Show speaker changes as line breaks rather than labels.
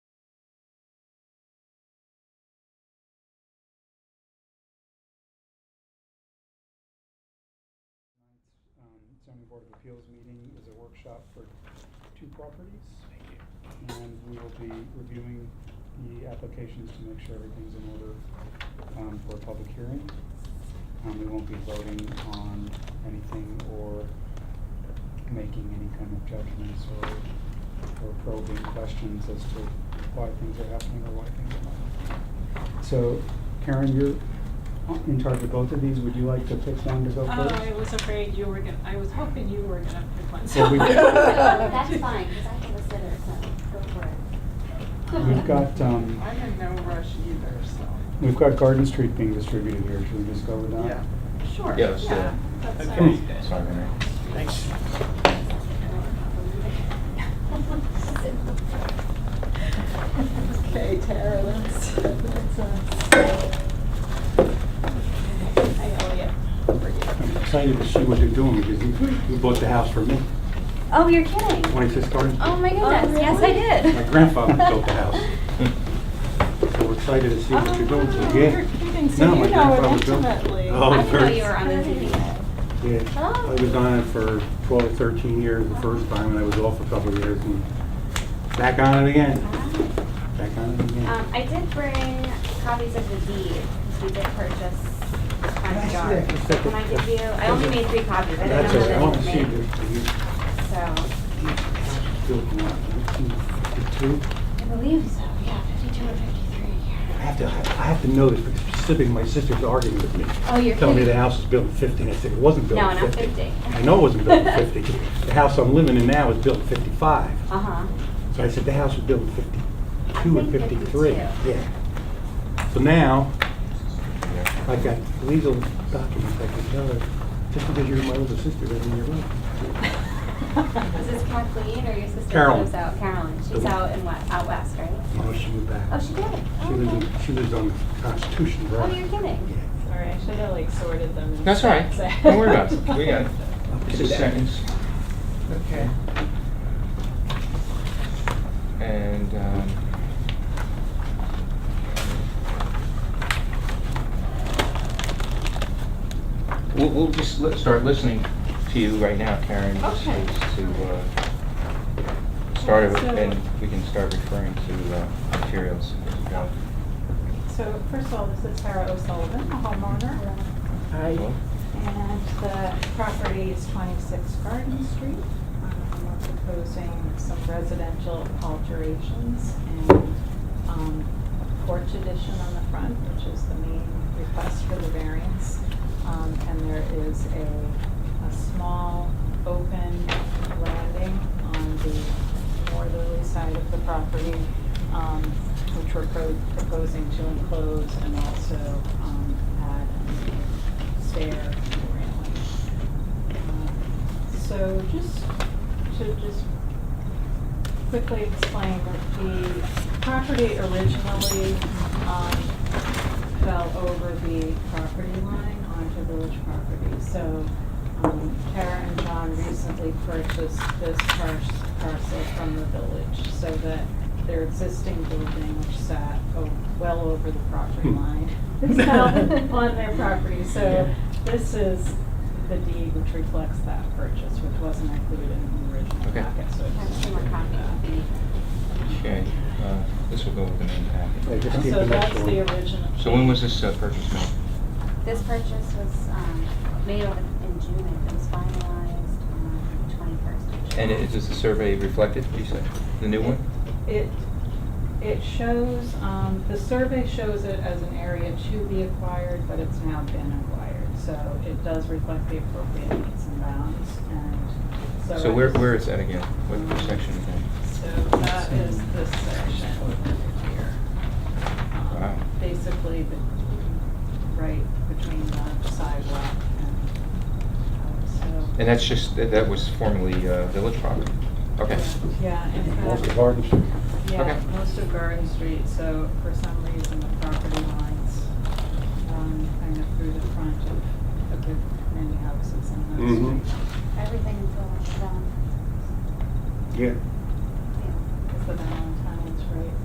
um, zoning board of appeals meeting is a workshop for two properties. And we will be reviewing the applications to make sure everything's in order um, for a public hearing. Um, We won't be voting on anything or making any kind of judgments or or probing questions as to why things are happening or why things are not happening. So Karen, you're in charge of both of these. Would you like to pick one to go
Oh,
first?
I was afraid you were gonna, I was hoping you were gonna pick one, so.
Well, we-
That's fine, because I have a sitter, so go for it.
We've got,
uh,
um,
I'm in no rush either, so.
We've got Garden Street being distributed here, should we just go with that?
Yeah.
Sure.
Yeah, let's do
yeah, that
Okay.
sounds-
Sorry, Henry.
Thanks.
Okay, Tara, that's, that's us. Hi, Elliot.
I'm excited to see what they're doing because you- you bought the house for me,
Oh, you're kidding?
26 Garden
Oh,
Street.
my goodness, yes, I did.
My grandfather built the house. So we're excited to see what you're doing. So,
Oh,
yeah.
You're kidding,
No,
so
my
you know it
grandfather built-
intimately.
Oh,
I didn't know
very-
you were on the TV.
Yeah, I was on it for 12, 13 years the first time and I was off a couple of years and back on it again, back on it
Um,
again.
I did bring copies of the deed, because we did purchase front yard.
that for a
So
second?
Can I give you, I only made three copies, I
That's
didn't
it, I
know
want
that
to
it
see if
made,
you
so.
built in 1952.
I believe so, yeah, fifty-two or fifty-three.
I have to, I have to know this because specifically my sister's arguing with me.
Oh, you're
Telling me the
kidding.
house is built in 50, and I said, it wasn't built
No,
in
not
50.
50.
I know it wasn't built in 50. The house I'm living in now is built in 55.
Uh-huh.
So I said, the house was built in
I
52 and
think
53.
52.
Yeah. So now, I got legal documents I can tell her, just because you're my older sister doesn't mean you're right.
Is this Kathleen or your sister? who
Carolyn.
lives out? Carolyn, she's
The-
out in what, out west, right?
No, she moved back.
Oh, she did? Oh,
She lives,
okay.
in- she lives on Constitution,
Oh, you're
right?
kidding?
Sorry, I should have like sorted them.
That's all right. Don't worry about it. We got it. It's a sentence.
Okay.
And, um, we'll, we'll just li- start listening to you right now, Karen. just
Okay.
To, uh, start it,
So-
and we can start referring to, uh, materials. as we go.
So first of all, this is Tara O'Sullivan, a homeowner,
Cool?
and the property is 26 Garden Street. Um, We're proposing some residential alterations and um, a porch addition on the front, which is the main request for the variance. Um, And there is a, a small open landing on the northerly side of the property, um, which we're pro- proposing to enclose and also um, add a stair and railing. Uh, So just, to just quickly explain that the property originally um, fell over the property line onto village property. So um, Tara and John recently purchased this par- parcel from the village so that their existing building, which sat o- well over the property line, is now on their property. So this is the deed which reflects that purchase, which wasn't included in the original
Okay.
packet. So
I have
it's
two more copies.
Okay, uh, this will go with the main
I
packet.
just keep
so
the next
that's
one.
the original.
So when was this uh, purchase made?
This purchase was, um, made over in June, and it was finalized on the twenty-first.
And is this the survey reflected, you said, the new one?
It, it shows, um, the survey shows it as an area to be acquired, but it's now been acquired. So it does reflect the appropriate needs and bounds, and so.
So where,
it's-
where is that again? What section is that?
So that is this section over here. Um,
Wow.
Basically, the, right between the sidewalk and, uh, so.
And that's just, that that was formerly uh, village property? Okay.
Yeah, in fact.
Walter Garden Street.
Yeah,
Okay.
most of Garden Street, so for some reason the property lines run kind of through the front of a good many houses on that
Mm-hmm.
Mhm.
street.
Everything's all done.
Yeah.
Yeah.
It's the Valentine's, right?